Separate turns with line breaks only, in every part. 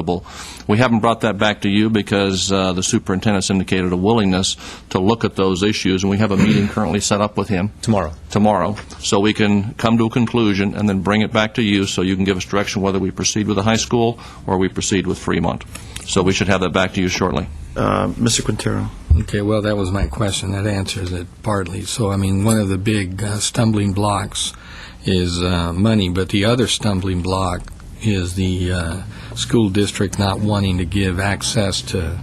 acceptable. We haven't brought that back to you because uh, the superintendent's indicated a willingness to look at those issues, and we have a meeting currently set up with him.
Tomorrow.
Tomorrow, so we can come to a conclusion and then bring it back to you, so you can give us direction whether we proceed with the high school or we proceed with Fremont. So we should have that back to you shortly.
Uh, Mr. Quintero.
Okay, well, that was my question. That answers it partly. So, I mean, one of the big uh, stumbling blocks is uh, money, but the other stumbling block is the uh, school district not wanting to give access to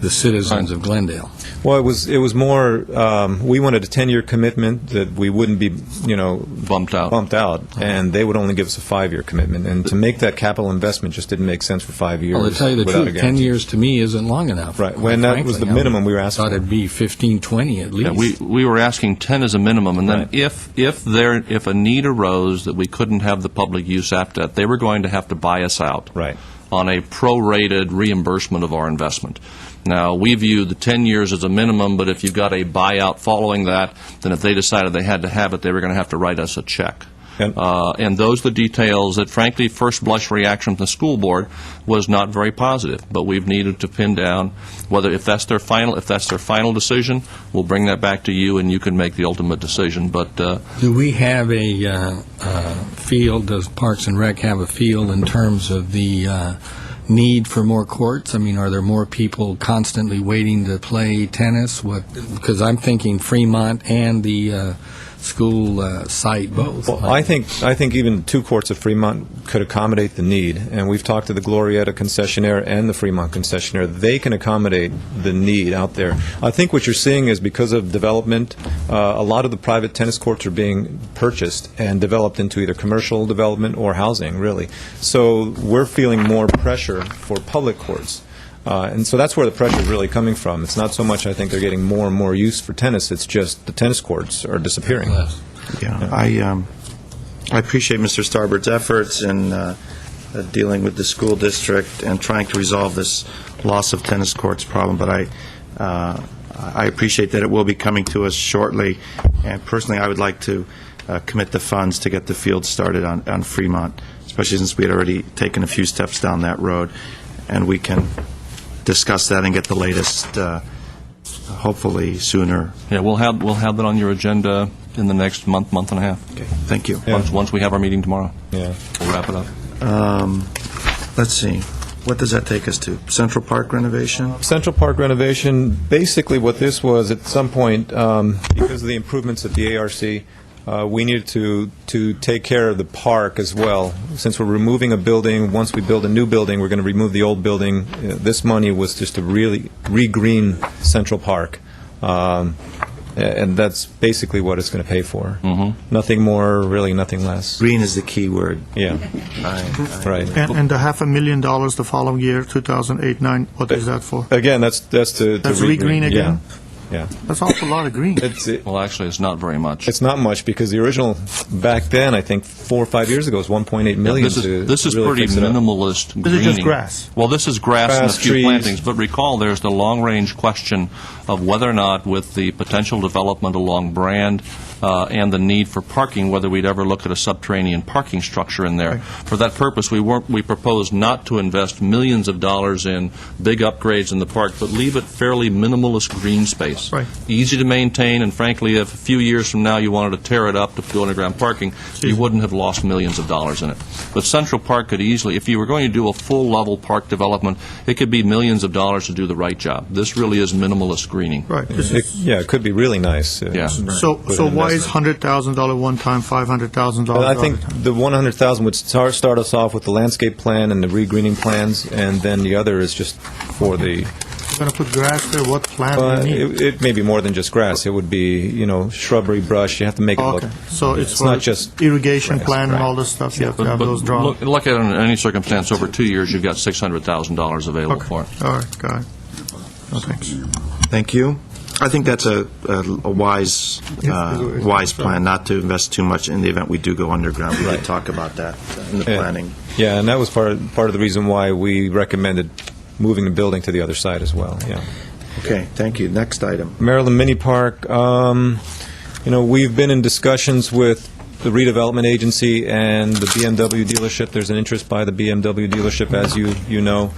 the citizens of Glendale.
Well, it was, it was more, um, we wanted a 10-year commitment that we wouldn't be, you know.
Bumped out.
Bumped out, and they would only give us a five-year commitment. And to make that capital investment just didn't make sense for five years.
Well, to tell you the
without a
truth, 10
guarantee.
years to me isn't long enough.
Right,
quite
when that was
frankly.
the
I
minimum we were asking
Thought
for.
it'd be 15, 20 at
Yeah,
least.
we, we were asking 10 as a minimum, and then
Right.
if, if there, if a need arose that we couldn't have the public use apt at, they were going to have to buy us out.
Right.
On a prorated reimbursement of our investment. Now, we view the 10 years as a minimum, but if you've got a buyout following that, then if they decided they had to have it, they were going to have to write us a check.
And-
Uh, And those are the details that frankly, first blush reaction from the school board was not very positive, but we've needed to pin down whether, if that's their final, if that's their final decision, we'll bring that back to you, and you can make the ultimate decision, but uh,
Do we have a uh, uh, field, does Parks and Rec have a field in terms of the uh, need for more courts? I mean, are there more people constantly waiting to play tennis? What, because I'm thinking Fremont and the uh, school uh, site both.
Well, I think, I think even two courts of Fremont could accommodate the need, and we've talked to the Glorieta concessionaire and the Fremont concessionaire. They can accommodate the need out there. I think what you're seeing is because of development, uh, a lot of the private tennis courts are being purchased and developed into either commercial development or housing, really. So we're feeling more pressure for public courts. Uh, and so that's where the pressure is really coming from. It's not so much, I think, they're getting more and more use for tennis, it's just the tennis courts are disappearing.
Yes.
Yeah, I, um, I appreciate Mr. Starbird's efforts in uh, uh, dealing with the school district and trying to resolve this loss of tennis courts problem, but I, uh, I appreciate that it will be coming to us shortly, and personally, I would like to uh, commit the funds to get the field started on, on Fremont, especially since we had already taken a few steps down that road, and we can discuss that and get the latest, uh, hopefully sooner.
yeah, we'll have, we'll have that on your agenda in the next month, month and a half,
Okay, thank you.
once, once we have our meeting tomorrow.
Yeah.
We'll wrap it up.
Um, Let's see, what does that take us to? Central Park renovation?
Central Park renovation, basically what this was, at some point, um, because of the improvements at the ARC, uh, we needed to, to take care of the park as well. Since we're removing a building, once we build a new building, we're going to remove the old building. Uh, This money was just to really re-green Central Park. Um, a- And that's basically what it's going to pay for. Nothing more, really, nothing less.
Green is the key word.
Yeah,
I- I-
right.
And, and the half a million dollars the following year, 2008-9, what is that for?
Again, that's, that's to. to
That's
re-green,
re-green again?
Yeah, yeah.
That's an awful lot of green.
It's, it-
Well, actually, it's not very much.
It's not much because the original back then, I think four or five years ago, was 1.8 million.
This
to
is, this is
really
pretty
fix it up.
minimalist greening.
This is just grass.
Well, this is grass and a
Grass,
few
trees.
plantings, but recall, there's the long-range question of whether or not, with the potential development along Brand uh, and the need for parking, whether we'd ever look at a subterranean parking structure in there. For that purpose, we weren't, we proposed not to invest millions of dollars in big upgrades in the park, but leave it fairly minimalist green space.
Right.
Easy to maintain, and frankly, if a few years from now you wanted to tear it up to do underground parking, you wouldn't have lost millions of dollars in it. But Central Park could easily, if you were going to do a full-level park development, it could be millions of dollars to do the right job. This really is minimalist greening.
Right, this
It-
is,
Yeah, it could be really nice. uh,
Yeah.
so,
with
so
an
why is
investment.
$100,000 one time, $500,000
But I
other
think
time?
the 100,000 would start, start us off with the landscape plan and the regreening plans, and then the other is just for the,
You're going to put grass there, what
uh,
plant do you need?
it it may be more than just grass. It would be, you know, shrubbery, brush, you have to make it look.
Okay, so
Yeah,
it's
not
for
just
irrigation
grass,
plan and
right.
all this stuff, you have to
But
have
but
those drawn?
look look at it in any circumstance, over two years, you've got $600,000 available
Okay,
for
all
it.
right, got it. No, Thanks.
Thank you. I think that's a, a a wise, uh, wise plan, not to invest too much in the event we do go underground. We did talk about that in the
Yeah.
planning.
Yeah, and that was part, part of the reason why we recommended moving the building to the other side as well, yeah.
Okay, thank you. Next item.
Maryland Mini Park, um, you know, we've been in discussions with the redevelopment agency and the BMW dealership. There's an interest by the BMW dealership, as you, you know.